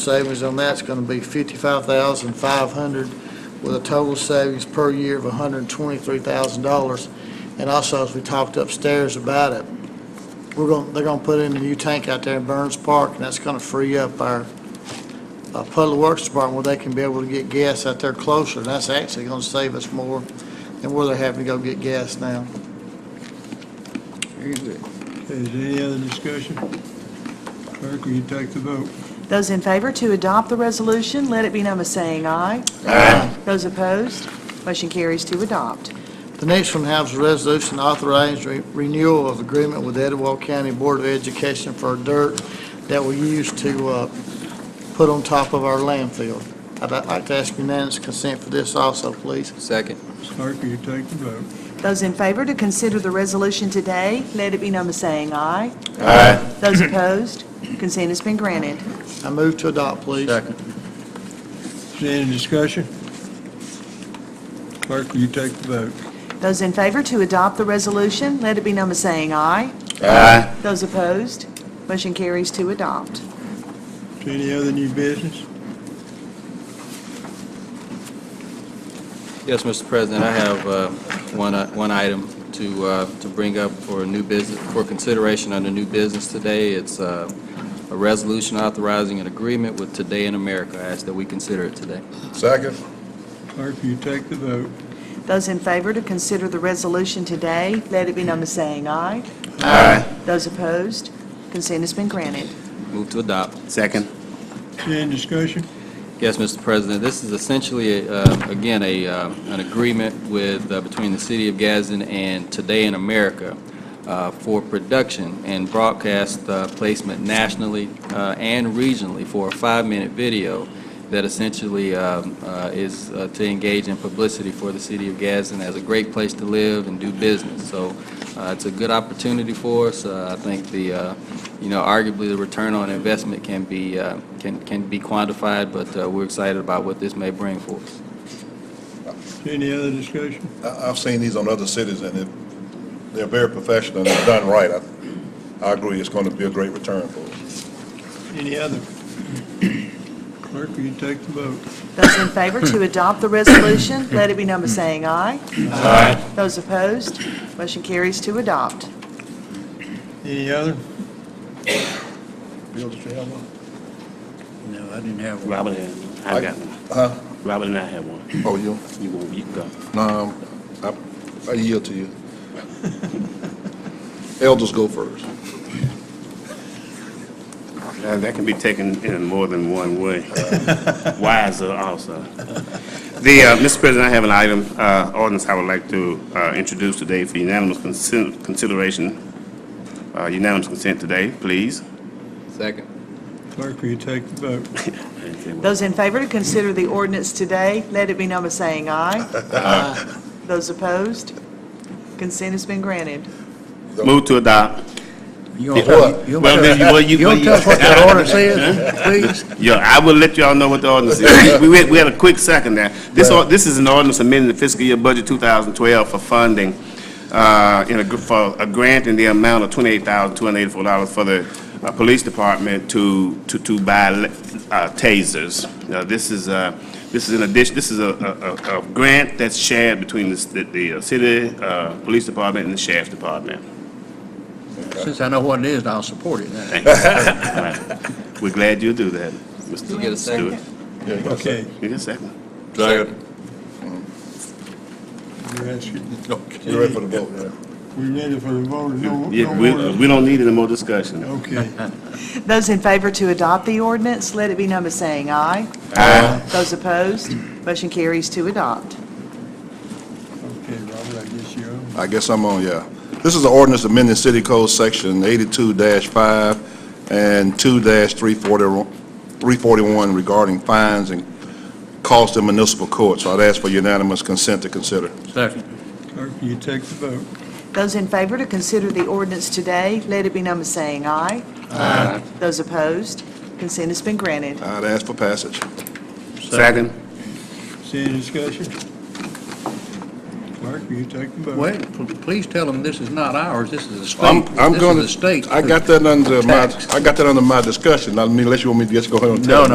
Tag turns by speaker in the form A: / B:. A: Savings on that's going to be fifty-five thousand five hundred with a total savings per year of hundred and twenty-three thousand dollars. And also, as we talked upstairs about it, we're going, they're going to put in a new tank out there in Burns Park, and that's going to free up our uh, Public Works Department where they can be able to get gas out there closer. And that's actually going to save us more than where they're having to go get gas now.
B: Is there any other discussion? Clerk, will you take the vote?
C: Those in favor to adopt the resolution, let it be known by saying aye. Aye. Those opposed, motion carries to adopt.
A: The next one has a resolution authorizing re- renewal of agreement with Etowah County Board of Education for dirt that we use to uh, put on top of our landfill. I'd like to ask unanimous consent for this also, please.
D: Second.
B: Clerk, will you take the vote?
C: Those in favor to consider the resolution today, let it be known by saying aye. Aye. Those opposed, consent has been granted.
A: I move to adopt, please.
B: Is there any discussion? Clerk, will you take the vote?
C: Those in favor to adopt the resolution, let it be known by saying aye.
D: Aye.
C: Those opposed, motion carries to adopt.
B: Is there any other new business?
D: Yes, Mr. President, I have uh, one uh, one item to uh, to bring up for new business, for consideration under new business today. It's uh, a resolution authorizing an agreement with Today in America. I ask that we consider it today.
E: Second.
B: Clerk, will you take the vote?
C: Those in favor to consider the resolution today, let it be known by saying aye.
E: Aye.
C: Those opposed, consent has been granted.
D: Move to adopt.
E: Second.
B: Is there any discussion?
D: Yes, Mr. President, this is essentially, uh, again, a, uh, an agreement with, uh, between the City of Gadsden and Today in America uh, for production and broadcast uh, placement nationally uh, and regionally for a five-minute video that essentially um, uh, is uh, to engage in publicity for the City of Gadsden as a great place to live and do business. So uh, it's a good opportunity for us. Uh, I think the, uh, you know, arguably the return on investment can be, uh, can, can be quantified, but uh, we're excited about what this may bring for us.
B: Is there any other discussion?
E: I, I've seen these on other cities, and it, they're very professional, and they're done right. I, I agree, it's going to be a great return for us.
B: Any other? Clerk, will you take the vote?
C: Those in favor to adopt the resolution, let it be known by saying aye. Aye. Those opposed, motion carries to adopt.
B: Any other?
E: Bill, did you have one?
F: No, I didn't have one. Robert had one.
E: I-
F: I got one.
E: Huh?
F: Robert and I had one.
E: Oh, you?
F: You go, you go.
E: No, I, I yield to you. Elders go first.
F: Uh, That can be taken in more than one way. Wiser also. The, uh, Mr. President, I have an item, uh, ordinance I would like to uh, introduce today for unanimous consen- consideration, uh, unanimous consent today, please.
D: Second.
B: Clerk, will you take the vote?
C: Those in favor to consider the ordinance today, let it be known by saying aye. Aye. Those opposed, consent has been granted.
F: Move to adopt.
G: You don't
E: What?
G: tell- you don't
F: Well,
G: tell-
F: then you, well, you.
G: you don't tell us what that ordinance is, please?
F: Yeah, I will let y'all know what the ordinance is. We, we had- we had a quick second there. This, or- this is an ordinance amending the fiscal year budget 2012 for funding, uh, in a, gr- for a grant in the amount of $28,284 for the uh, police department to, to, to buy le- uh, tasers. Now, this is, uh, this is an addition, this is a, a, a- a grant that's shared between the, s- the- the uh, city, uh, police department and the sheriff's department.
G: Since I know what it is, I'll support it now.
F: We're glad you do that, Mr.
D: you get a second?
F: Stewart.
B: Okay,
F: You get a second.
E: Second.
B: you're asking.
E: You ready for the vote, yeah?
B: We ready for the vote? No-
F: Yeah,
B: no
F: we,
B: more-
F: we don't need any more discussion.
B: Okay.
C: Those in favor to adopt the ordinance, let it be known by saying aye. Aye. Those opposed, motion carries to adopt.
B: Okay, Robert, I guess you're on.
E: I guess I'm on, yeah. This is an ordinance amending City Code Section 82-5 and 2-341 regarding fines and costs in municipal court. So I'd ask for unanimous consent to consider.
G: Second.
B: Clerk, will you take the vote?
C: Those in favor to consider the ordinance today, let it be known by saying aye. Aye. Those opposed, consent has been granted.
E: I'd ask for passage.
F: Second.
B: Is there any discussion? Clerk, will you take the vote?
G: Wait, p- please tell them this is not ours, this is the
E: I'm,
G: state.
E: I'm
G: This
E: going
G: is the
E: to,
G: state.
E: I got that under my,
G: Tax.
E: I got that under my discussion. I mean, unless you want me to just go ahead and tell
G: No,
E: them.